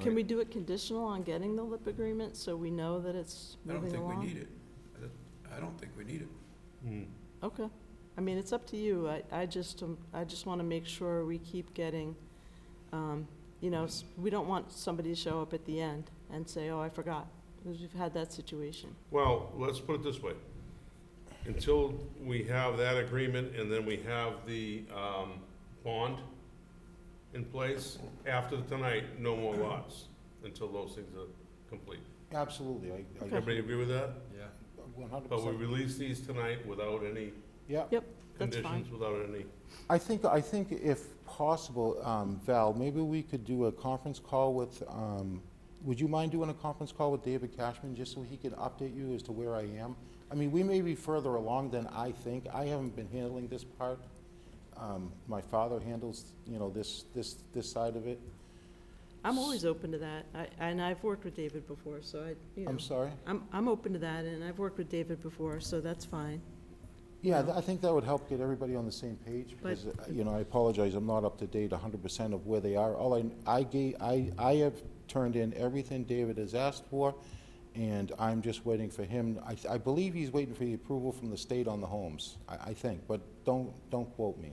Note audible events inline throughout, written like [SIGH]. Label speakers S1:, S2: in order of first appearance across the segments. S1: Can we
S2: right?
S1: do it conditional on getting the lip agreement, so we know that it's
S2: I don't
S1: moving
S2: think
S1: along?
S2: we need it. I don't- I don't think we need it.
S1: Okay, I mean, it's up to you, I, I just, um, I just wanna make sure we keep getting, um, you know, s- we don't want somebody to show up at the end and say, oh, I forgot, because we've had that situation.
S3: Well, let's put it this way. Until we have that agreement and then we have the, um, bond in place, after tonight, no more lots, until those things are complete.
S4: Absolutely, I, I,
S3: Everybody agree with that?
S2: Yeah.
S4: one hundred
S3: But we
S4: percent.
S3: release these tonight without any
S4: Yeah,
S1: Yep, that's fine.
S3: conditions, without any,
S4: I think, I think if possible, um, Val, maybe we could do a conference call with, um, would you mind doing a conference call with David Cashman, just so he could update you as to where I am? I mean, we may be further along than I think, I haven't been handling this part. Um, my father handles, you know, this, this, this side of it.
S1: I'm always open to that, I, and I've worked with David before, so I, you know,
S4: I'm sorry?
S1: I'm, I'm open to that, and I've worked with David before, so that's fine.
S4: Yeah, th- I think that would help get everybody on the same page,
S1: But-
S4: because, uh, you know, I apologize, I'm not up to date hundred percent of where they are. All I, I gave, I, I have turned in everything David has asked for, and I'm just waiting for him, I, th- I believe he's waiting for the approval from the state on the homes, I, I think, but don't, don't quote me.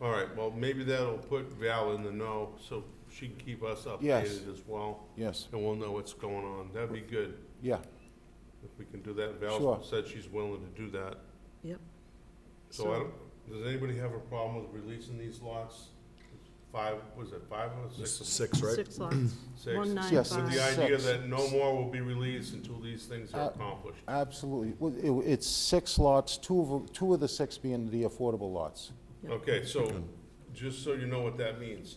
S3: all right, well, maybe that'll put Val in the know, so she can keep us
S4: Yes.
S3: updated as well,
S4: Yes,
S3: and we'll know what's going on. That'd be good,
S4: yeah,
S3: if we can do that.
S4: Sure.
S3: Val said she's willing to do that.
S1: Yep.
S3: So I don't, does anybody have a problem with releasing these lots? Five, was it five or six?
S5: This is six, right?
S2: [CLEARS THROAT]
S1: Six lots,
S3: Six.
S1: one nine
S4: Yes,
S1: five.
S3: With the idea
S4: Six.
S3: that no more will be released until these things
S5: Uh,
S3: are accomplished.
S4: absolutely. Well, it, it's six lots, two of, 'em- two of the six being the affordable lots.
S1: Yep.
S3: Okay, so, just so you know what that means,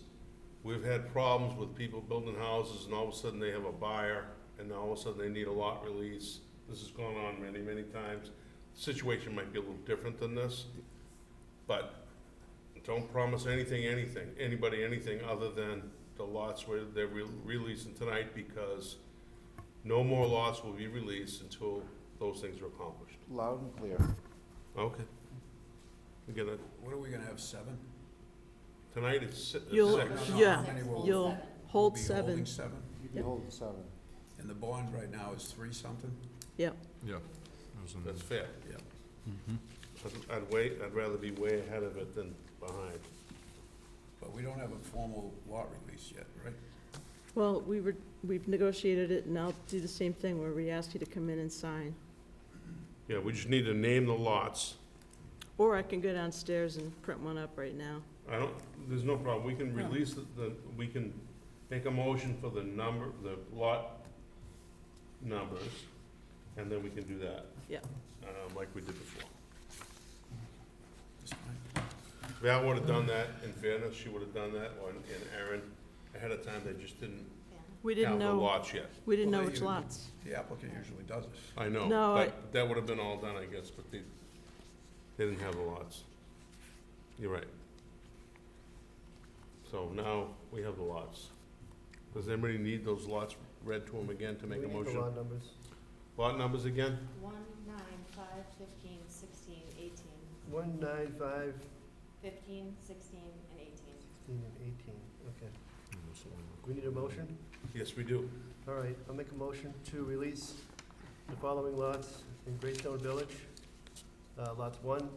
S3: we've had problems with people building houses and all of a sudden they have a buyer and now all of a sudden they need a lot release. This has gone on many, many times. Situation might be a little different than this, but don't promise anything, anything, anybody, anything other than the lots where they're re- releasing tonight because no more lots will be released until those things are accomplished.
S4: Loud and clear.
S3: Okay. Again, uh,
S2: What are we gonna have, seven?
S3: tonight it's si- it's 6
S1: You'll-
S2: No, no, no, how
S1: yeah,
S2: many will-
S1: you'll
S2: we'll
S1: hold
S2: be
S1: seven.
S2: holding seven,
S4: You'd be
S1: Yep.
S4: holding seven.
S2: and the bond right now is three something?
S1: Yep,
S5: Yeah.
S3: That's fair.
S2: Yeah.
S3: I'd- I'd wait, I'd rather be way ahead of it than behind.
S2: But we don't have a formal lot release yet, right?
S1: well, we were, we've negotiated it, and I'll do the same thing, where we ask you to come in and sign.
S3: Yeah, we just need to name the lots.
S1: Or I can go downstairs and print one up right now.
S3: I don't, there's no problem, we can release the- the, we can make a motion for the number, the lot numbers, and then we can do that.
S1: Yeah.
S3: Um, like we did before.
S2: This time?
S3: Val would've done that, in fairness, she would've done that, or, and Aaron, ahead of time, they just didn't
S1: We didn't
S3: have the
S1: know,
S3: lots yet.
S1: we didn't know
S2: Well,
S1: which
S2: you-
S1: lots.
S2: The applicant usually does this.
S3: I know,
S1: No, I-
S3: but that would have been all done, I guess, but they, they didn't have the lots. You're right. So now we have the lots. Does anybody need those lots read to them again to make a motion? Lot numbers. again?
S6: One, nine, five, fifteen, sixteen, eighteen.
S7: One, nine, five,
S6: Fifteen, sixteen, and eighteen.
S7: sixteen, and eighteen, okay. We need a motion?
S3: Yes, we do.
S7: All right, I'll make a motion to release the following lots in Greystone Village. Uh, lots one,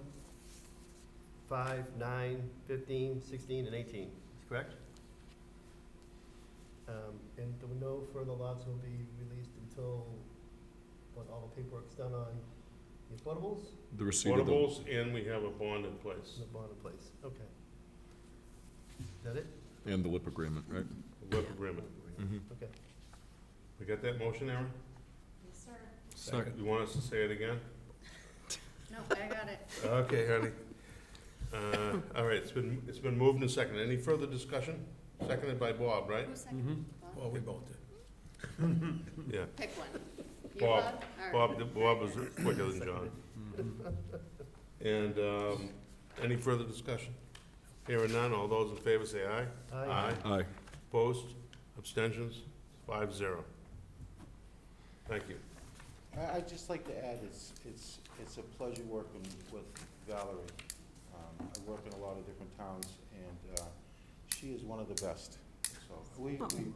S7: five, nine, fifteen, sixteen, and eighteen, Is correct? Um, and the- no further lots will be released until, what, all the paperwork's done on the affordables
S5: The receipt of the,
S3: Portables, and we have a bond in place.
S7: and the bond in place, okay. Is that it?
S5: and the lip agreement, right?
S3: Lip agreement.
S5: Mm-hmm.
S7: Okay.
S3: We got that motion, Aaron?
S6: Yes, sir.
S2: Second.
S3: You want us to say it again?
S6: No, I got it.
S3: Okay, honey. Uh, all right, it's been, it's been moved and seconded. Any further discussion? Seconded by Bob, right?
S6: Who seconded? Bob?
S2: Well, we both did.
S3: Yeah.
S6: Pick one. You,
S3: Bob.
S6: Bob? All right.
S3: Bob, Bob was quicker than John. And, um, any further discussion? Hearing none, all those in favor say aye.
S7: Aye.
S5: Aye.
S3: Opposed, abstentions, five zero. Thank you.
S4: I, I'd just like to add, it's, it's, it's a pleasure working with Valerie. Um, I work in a lot of different towns, and, uh, she is one of the best, so we, we,